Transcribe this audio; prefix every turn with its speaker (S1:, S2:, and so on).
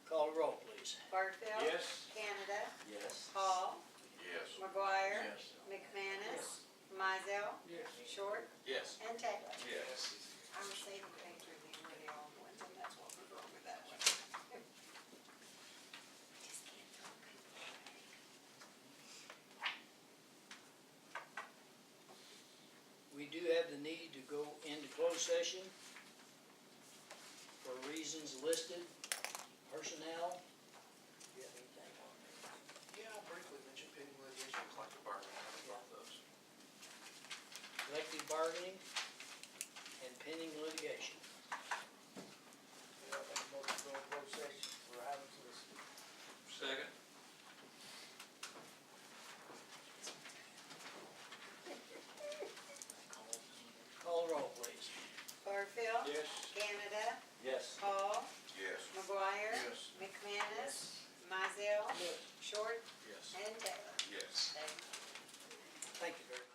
S1: Yes.
S2: Barfield.
S3: Yes.
S2: Canada.
S1: Yes.
S2: Hall.
S3: Yes.
S2: McGuire.
S1: Yes.
S2: McManus. Mizell. Short.
S1: Yes.
S2: And Taylor.
S3: Yes.
S2: I'm saving things with the really old ones, and that's what was wrong with that one. Just can't talk.
S4: We do have the need to go into closed session for reasons listed, personnel. Do you have anything on that?
S3: Yeah, I briefly mentioned pending litigation, collective bargaining, I have both those.
S4: Collective bargaining and pending litigation.
S5: Yeah, I think most of the closed session for items listed.
S3: Second.
S4: Call roll, please.
S2: Barfield.
S3: Yes.
S2: Canada.
S1: Yes.
S2: Hall.
S3: Yes.
S2: McGuire.
S3: Yes.
S2: McManus. Mizell. Short.
S3: Yes.
S2: And Taylor.
S3: Yes.
S2: Thank